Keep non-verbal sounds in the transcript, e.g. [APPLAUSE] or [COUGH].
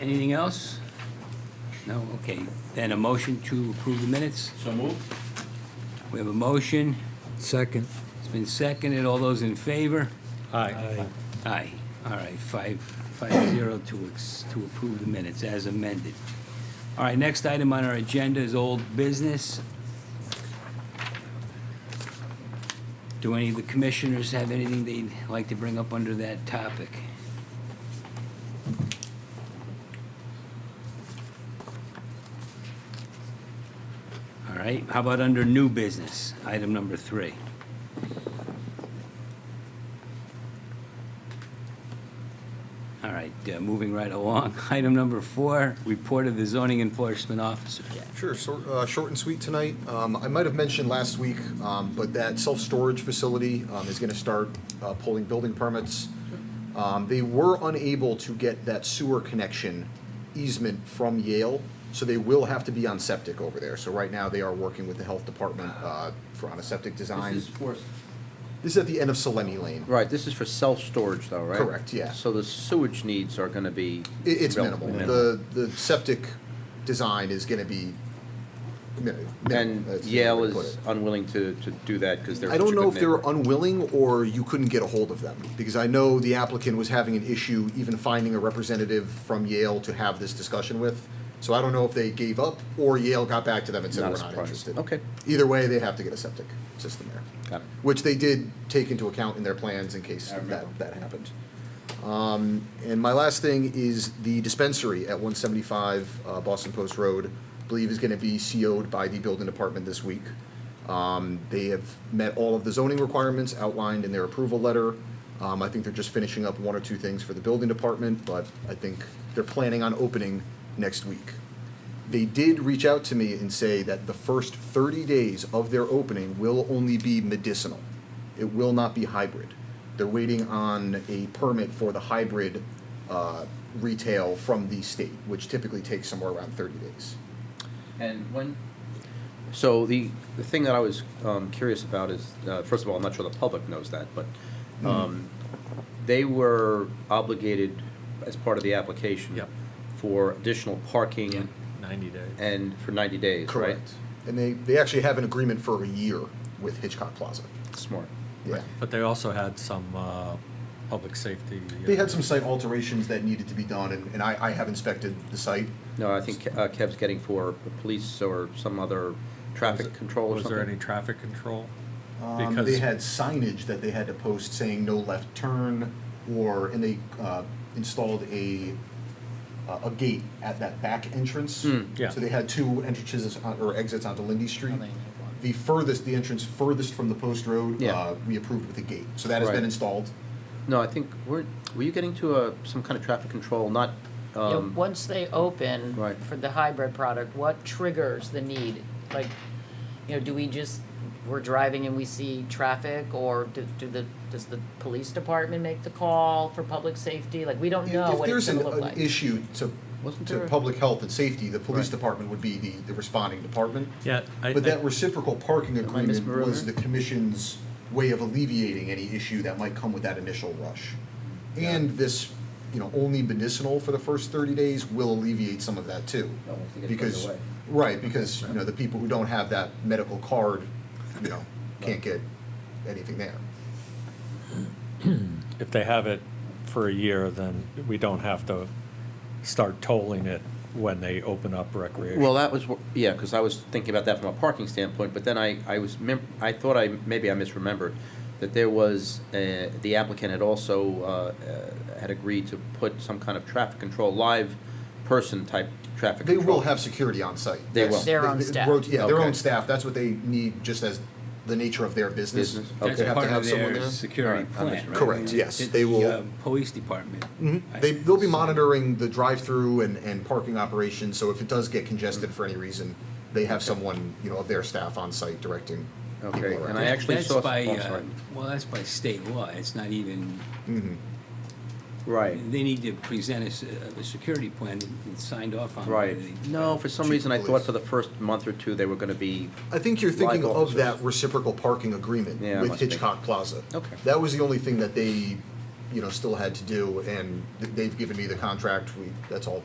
Anything else? No, okay. Then a motion to approve the minutes. So moved. We have a motion. Second. It's been seconded. All those in favor? Aye. Aye. All right, five, five zero to, ex- to approve the minutes as amended. All right, next item on our agenda is old business. Do any of the commissioners have anything they'd like to bring up under that topic? All right, how about under new business, item number three? All right, uh, moving right along. [LAUGHS] Item number four, report of the zoning enforcement officer. Sure, so, uh, short and sweet tonight. Um, I might have mentioned last week, um, but that self-storage facility, um, is gonna start, uh, pulling building permits. Um, they were unable to get that sewer connection easement from Yale, so they will have to be on septic over there. So right now, they are working with the health department, uh, for, on a septic design. This is for, This is at the end of Selene Lane. right, this is for self-storage though, right? Correct, yeah. So the sewage needs are gonna be. It, it's minimal. relatively The, the septic design is gonna be min- minimal. And That's the way Yale to put is it. unwilling to, to do that because they're. I such don't a know good if they were neighbor. unwilling or you couldn't get a hold of them, because I know the applicant was having an issue even finding a representative from Yale to have this discussion with. So I don't know if they gave up or Yale got back to them and said, Not a we're not surprise. interested. Okay. Either way, they have to get a septic system there. Got it. Which they did take into account in their plans in case I remember. that, that happened. Um, and my last thing is the dispensary at one seventy-five, uh, Boston Post Road, believe is gonna be CO'd by the building department this week. Um, they have met all of the zoning requirements outlined in their approval letter. Um, I think they're just finishing up one or two things for the building department, but I think they're planning on opening next week. They did reach out to me and say that the first thirty days of their opening will only be medicinal. It will not be hybrid. They're waiting on a permit for the hybrid uh, retail from the state, which typically takes somewhere around 30 days. And when? So the, the thing that I was um, curious about is, uh, first of all, I'm not sure the public knows that, but Mm-hmm. um, they were obligated as part of the application. Yep. For additional parking 90 days. and for ninety days, right? And they, they actually have an agreement for a year with Hitchcock Plaza. Smart. Yeah. But they also had some uh, public safety. uh, They had some site alterations that needed to be done, and, and I, I have inspected the site. No, I think uh, Kev's getting for police or some other traffic control or Was something. there any traffic control? Um, Because- they had signage that they had to post saying no left turn, or, and they uh, installed a, uh, a gate at that back entrance. Hmm, yeah. So they had two entrances on- or exits onto Lindy Street. The furthest, the entrance furthest from the post road, Yeah. uh, we approved with a gate. So that has been Right. installed. No, I think, were, were you getting to a, some kind of traffic control, not, Yeah, um, Once they open Right. for the hybrid product, what triggers the need? Like, you know, do we just, we're driving and we see traffic, or do, do the, does the police department make the call for public safety? Like, we don't know If what it's there's gonna an, look an like. issue to, Wasn't to there a- public health and safety, the police Right. department would be the, the responding department. Yeah, I, But that I- reciprocal parking I agreement misremembering? was the commission's way of alleviating any issue that might come with that initial rush. And this, you know, only medicinal for the first thirty days will alleviate some of that too. No, Oh, once they get Because, further away. right, because, you know, the people who don't have that medical card, you know, can't get anything there. if they have it for a year, then we don't have to start tolling it when they open up recreation. well, that was, wh- yeah, because I was thinking about that from a parking standpoint, but then I, I was, mem- I thought I, maybe I misremembered, that there was, uh, the applicant had also, uh, uh, had agreed to put some kind of traffic control, live person type traffic They control. will have security on site. They That's- will. Their own they- staff. rot- Yeah, their Okay. own staff, that's what they need, just as the nature of their business. Business, They okay. have to Part have of someone their there. security Alright, plan, understood. right? Correct, yes, It's they the, will- Mm-hmm. uh, Police department. I- They, they'll be monitoring the drive-through and, and parking operations, so if it does get congested for any reason, they have someone, you know, of their staff on site directing people Okay, around. and I actually That's saw- by, oh, I'm uh, sorry. well, that's by state law, it's not even, Right. they need to present us a, a security plan that's signed off on. by Right. the- No, for some Chief reason, I of thought police. for the first month or two, they were gonna be, I think you're thinking Like of that officers. reciprocal parking agreement Yeah, with must be. Hitchcock Plaza. Okay. That was the only thing that they, you know, still had to do, and th- they've given me the contract, we, that's all